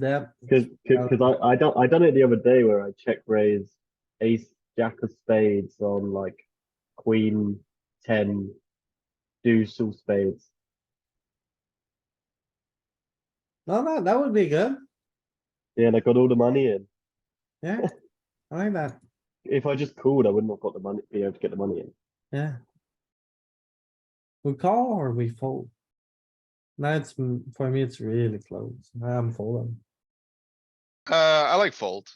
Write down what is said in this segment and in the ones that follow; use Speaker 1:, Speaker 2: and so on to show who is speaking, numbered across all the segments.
Speaker 1: That,
Speaker 2: Because because I I done I done it the other day where I check raised ace jack of spades on like queen ten deuce all spades.
Speaker 1: no, Oh, no, that would be good.
Speaker 2: Yeah, and I got all the money in.
Speaker 1: Yeah, I like that.
Speaker 2: If I just called, I wouldn't have got the money. Be able to get the money in.
Speaker 1: Yeah. We call or we fold? Now it's, mm, for me, it's really close. I'm folding.
Speaker 3: Uh, I like fold.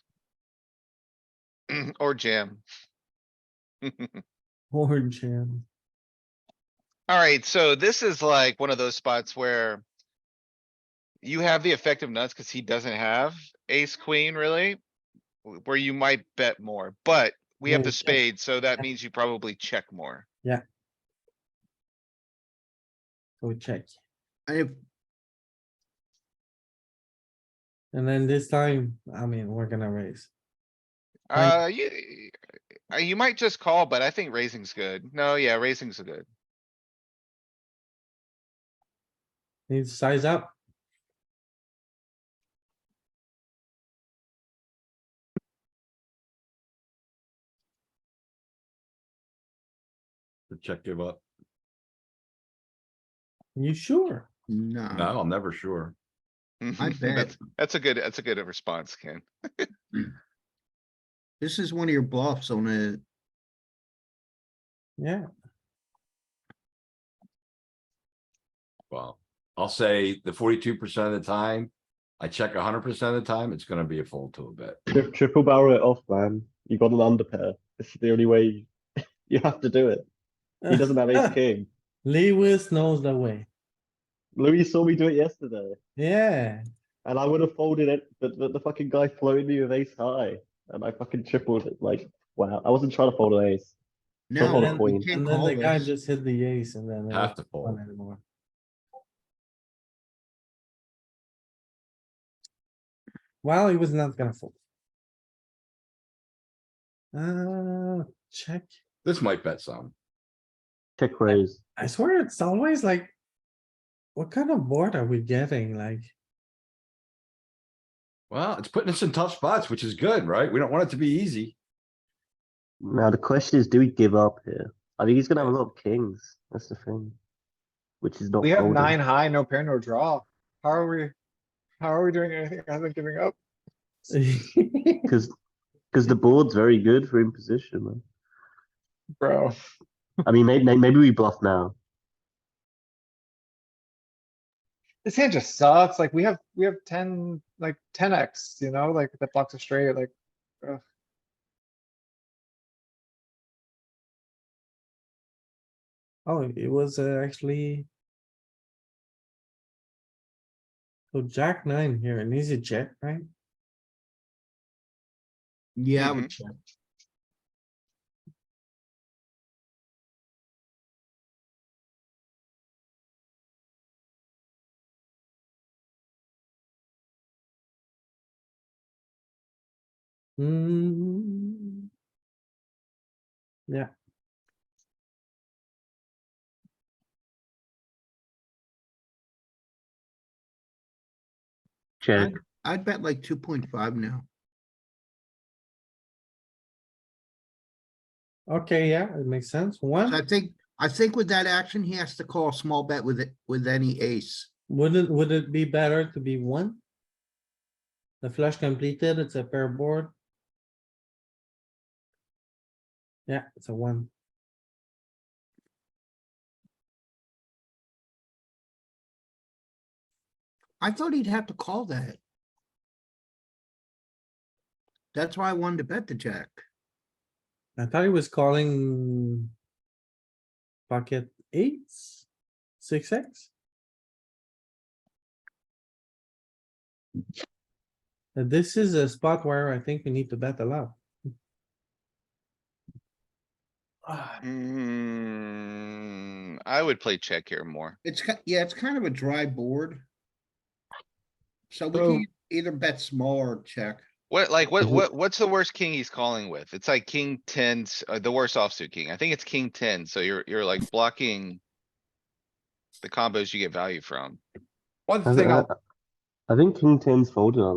Speaker 3: Or jam.
Speaker 1: Or jam.
Speaker 3: Alright, so this is like one of those spots where. You have the effective nuts cuz he doesn't have ace queen really. w- Where you might bet more, but we have
Speaker 1: Yeah,
Speaker 3: the
Speaker 1: check.
Speaker 3: spade, so that means you probably check more.
Speaker 1: So we check.
Speaker 4: I have,
Speaker 1: And then this time, I mean, we're gonna raise. Right.
Speaker 3: Uh, you, uh, you might just call, but I think raising's good. No, yeah, raising's good.
Speaker 1: Need to size up.
Speaker 5: The check give up?
Speaker 1: You sure?
Speaker 4: no,
Speaker 5: No, I'm never sure.
Speaker 4: I bet.
Speaker 3: That's- That's a good, that's a good response, Ken.
Speaker 4: This is one of your bluffs on a,
Speaker 1: Yeah,
Speaker 5: Well, I'll say the forty-two percent of the time, I check hundred percent of the time, it's gonna be a fold to a bit.
Speaker 2: Tri- triple barrel it off, man. You got an underpair. It's the only way. You, you have to do it. He doesn't have ace king.
Speaker 1: Lewis knows the way.
Speaker 2: Louis saw me do it yesterday,
Speaker 1: Yeah,
Speaker 2: and I would have folded it, but, but the fucking guy floated me with ace high, and I fucking tripled it. Like wow, I wasn't trying to fold an ace.
Speaker 4: now
Speaker 2: Call
Speaker 4: then we
Speaker 2: queen.
Speaker 4: can't
Speaker 1: and then
Speaker 4: call
Speaker 1: the guy
Speaker 4: this.
Speaker 1: just hit the ace and then. uh, it
Speaker 5: Have
Speaker 1: wasn't
Speaker 5: to
Speaker 1: fun
Speaker 5: fold.
Speaker 1: anymore. Well, he was not gonna fold. Uh, check.
Speaker 5: This might bet some.
Speaker 2: Check raise.
Speaker 1: I swear it's always like. What kind of board are we getting? Like,
Speaker 5: Well, it's putting us in tough spots, which is good, right? We don't want it to be easy.
Speaker 2: Now the question is, do we give up here? I think he's gonna have a lot of kings. That's the thing, which is not.
Speaker 6: We have
Speaker 2: folding.
Speaker 6: nine high, no pair, no draw. How are we? How are we doing anything other than giving up?
Speaker 2: because because the board's very good for imposition. Man.
Speaker 6: Bro,
Speaker 2: I mean, maybe maybe we bluff now.
Speaker 6: this hand just sucks. Like, we have, we have ten, like ten X, you know, like the blocks are straight, like. ugh.
Speaker 1: oh, it was uh, actually. So jack nine here, an easy check, right?
Speaker 4: Yeah, I would check.
Speaker 1: Hmm. Yeah.
Speaker 2: Check.
Speaker 4: I'd bet like two point five now.
Speaker 1: Okay, yeah, it makes sense.
Speaker 4: I
Speaker 1: One,
Speaker 4: think, I think with that action, he has to call a small bet with it, with any ace.
Speaker 1: wouldn't, would it be better to be one? The flush completed, it's a pair board. Yeah, it's a one.
Speaker 4: I thought he'd have to call that. That's why I wanted to bet the jack.
Speaker 1: I thought he was calling pocket eights, six X. And This is a spot where I think we need to bet a lot.
Speaker 3: Mm, I would play check here more.
Speaker 4: It's, ki- yeah, it's kind of a dry board. So we
Speaker 6: So-
Speaker 4: can either bet small or check.
Speaker 3: What, like, what,
Speaker 2: Mhm.
Speaker 3: what, what's the worst king he's calling with? It's like king tens, uh, the worst offsuit king. I think it's king ten, so you're, you're like blocking. The combos you get value from.
Speaker 5: One
Speaker 2: I,
Speaker 5: thing
Speaker 2: thi-
Speaker 5: I'll
Speaker 2: I- I think king ten's folded.